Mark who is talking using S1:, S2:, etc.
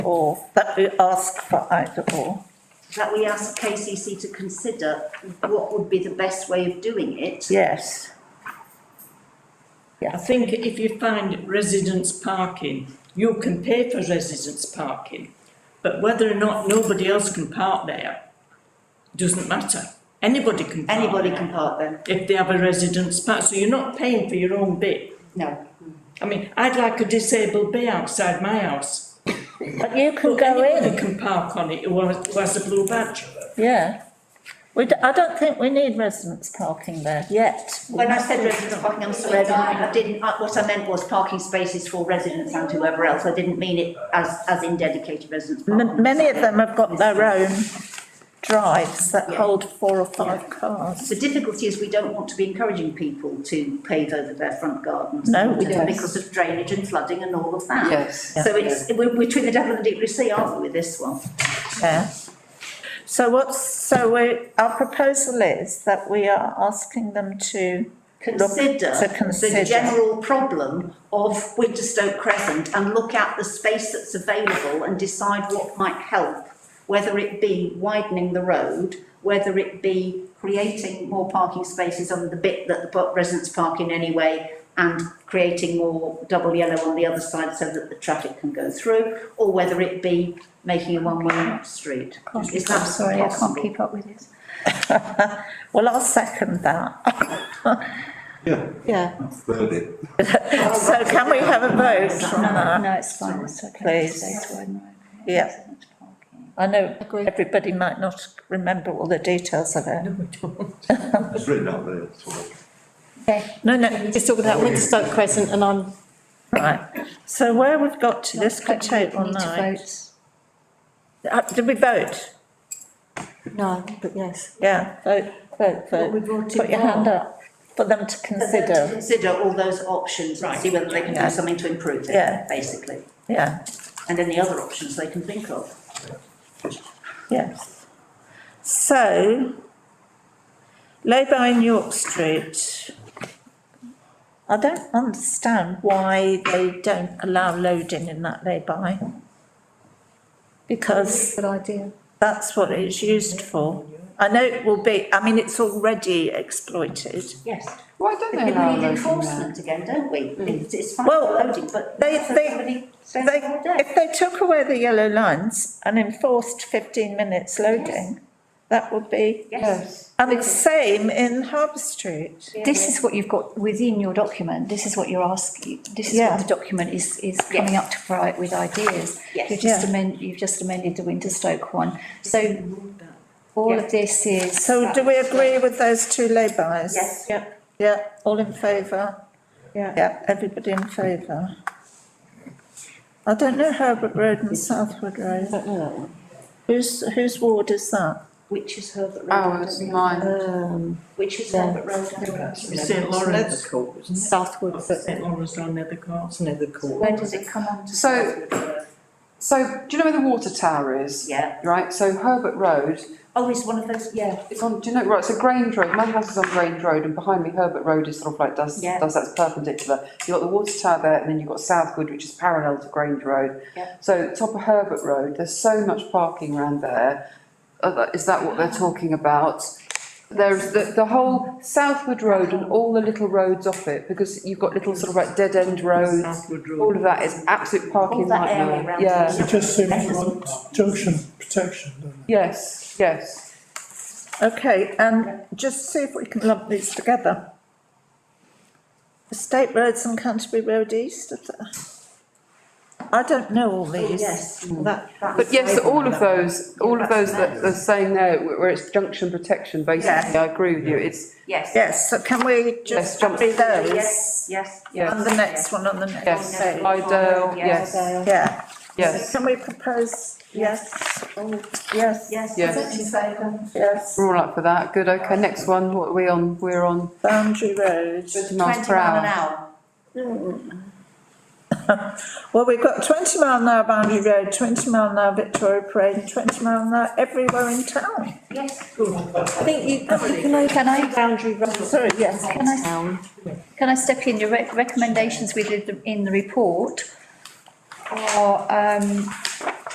S1: or that we ask for either or.
S2: that we ask KCC to consider what would be the best way of doing it.
S1: Yes,
S3: I think if you find residents parking, you can pay for residents parking. But whether or not nobody else can park there, doesn't matter. Anybody can park
S2: Anybody
S3: there
S2: can park there,
S3: If they have a residence park, so you're not paying for your own bit.
S2: no.
S3: I mean, I'd like a disabled bay outside my house.
S1: but you can
S3: But
S1: go
S3: anybody
S1: in,
S3: can park on it who has, who has a blue badge.
S1: yeah. We, d- I don't think we need residents parking there yet.
S2: When I said residents parking, I'm sorry, I didn't, I didn't, I- what I meant was parking spaces for residents and whoever else, I didn't mean it as, as in dedicated residents.
S1: M-
S2: parking.
S1: Many of them have got their own drives that
S2: Yeah.
S1: hold four or five cars.
S2: The difficulty is we don't want to be encouraging people to pave over their front gardens.
S1: No, we
S4: don't.
S2: Because of drainage and flooding and all of that.
S4: Yes.
S2: So it's, we're, we're between the devil and the deep blue sea, aren't we, with this one?
S1: Yeah. So what's, so we, our proposal is that we are asking them to, Look,
S2: consider
S1: to
S2: the
S1: consider.
S2: general problem of Winterstoke Crescent and look at the space that's available and decide what might help, whether it be widening the road, whether it be creating more parking spaces on the bit that the po- residents park in anyway, and creating more double yellow on the other side so that the traffic can go through, or whether it be making a one-way street. Is that
S4: Sorry, I can't
S2: possible?
S4: keep up with this.
S1: well, I'll second that.
S5: Yeah,
S1: Yeah.
S5: third it.
S1: So can we have a vote on
S4: No,
S1: that?
S4: no, it's fine, it's okay.
S1: Please.
S4: Space wide and right.
S1: Yeah.
S4: Residents parking.
S1: I know everybody might not remember all the details of it.
S5: It's written out there, it's all right.
S1: No, no,
S6: Just talking about Winterstoke Crescent and I'm,
S1: right. So where we've got to this
S4: Not collecting,
S1: table
S4: need to
S1: now.
S4: vote.
S1: Uh, Did we vote?
S6: no, but yes.
S1: Yeah, vote, vote,
S4: What we
S1: vote.
S4: brought
S1: Put
S4: in
S1: your hand
S4: for.
S1: up for them to consider.
S2: Consider all those options and see whether they can
S1: Yeah.
S2: do something to improve
S1: Yeah.
S2: it, basically.
S1: Yeah,
S2: and any other options they can think of.
S1: yes. So, Labour in York Street. I don't understand why they don't allow loading in that lay-by. Because
S4: Good idea.
S1: That's what it's used for. I know it will be, I mean, it's already exploited.
S2: Yes.
S4: Why don't
S2: We need enforcement again, don't we? It's, it's fine for
S1: Hmm. Well,
S2: loading, but.
S1: they-
S2: so
S1: they-
S2: somebody
S1: If
S2: spends
S1: they,
S2: all day.
S1: if they took away the yellow lines and enforced fifteen minutes loading, that would be,
S2: Yes.
S1: and it's same in Harbour Street.
S4: This is what you've got within your document, this is what you're asking, this is
S1: Yeah.
S4: what the document is, is coming up to provide with ideas.
S2: Yes.
S4: You've just
S1: Yeah.
S4: amended, you've just amended the Winterstoke one, so all
S2: Yeah.
S4: of this is. uh,
S1: So do we agree with those two laybys?
S2: Yes.
S1: Yep. Yeah, all in favour? Yeah. Yeah, everybody in favour. I don't know Herbert Road and Southwood Road.
S6: I don't know that one.
S1: Whose, whose ward is that?
S2: Which is Herbert
S7: Oh,
S2: Road.
S4: Ours, mine.
S6: Um,
S2: Uh, Which is
S6: Yeah.
S2: Herbert Road. I don't know.
S3: St Lawrence,
S6: Southwood, but
S3: St Lawrence down near the court. Near the court.
S2: Where does it come on to?
S7: So-
S2: Southwood Road?
S7: So, do you know where the water tower is?
S2: Yeah.
S7: Right, so Herbert Road,
S2: Oh, it's one of those, yeah.
S7: it's on, do you know, right, so Grange Road, my house is on Grange Road and behind me Herbert Road is sort of like, does,
S2: Yeah.
S7: does that's perpendicular. You've got the water tower there and then you've got Southwood, which is parallel to Grange Road.
S2: Yeah.
S7: So top of Herbert Road, there's so much parking around there. Uh, that- Is that what they're talking about? There's the, the whole Southwood Road and all the little roads off it, because you've got little sort of like dead end roads.
S3: Southwood
S7: All
S3: Road.
S7: of that is absolute
S2: All
S7: parking
S2: that
S7: nightmare.
S2: area around.
S7: Yeah.
S2: it.
S8: It just seems like junction protection, doesn't it?
S7: Yes, yes.
S1: Okay, and just see if we can lump these together. Estate roads and Canterbury Road East. is that- I don't know all
S2: Oh,
S1: these.
S2: Yes.
S1: That,
S7: But yes, all of those, all of those
S2: Yeah.
S7: that are saying there, where where it's junction protection, basically, I agree with you, it's,
S2: Yes.
S1: yes, so can we
S7: Yes,
S1: just
S7: jump-
S1: do those?
S2: Yes, yes.
S1: And
S7: yes,
S1: the next one on the next
S7: Yes.
S1: page,
S7: Idell, yes.
S1: yeah.
S7: yes,
S1: Can we propose, yes, yes,
S2: Yes.
S7: Yes.
S1: yes,
S7: we're all up for that, good, okay, next one, what are we on, we're on
S1: boundary roads.
S7: twenty miles
S2: Twenty
S7: per
S2: mile an
S7: hour.
S2: hour.
S1: Well, we've got twenty mile an hour boundary road, twenty mile an hour Victoria Parade and twenty mile an hour everywhere in town.
S2: Yes.
S6: I think you probably
S4: Can I, can I,
S6: boundary road
S1: Sorry, yes.
S4: can I,
S6: town.
S4: can I step in, your rec- recommendations we did in the report are, um,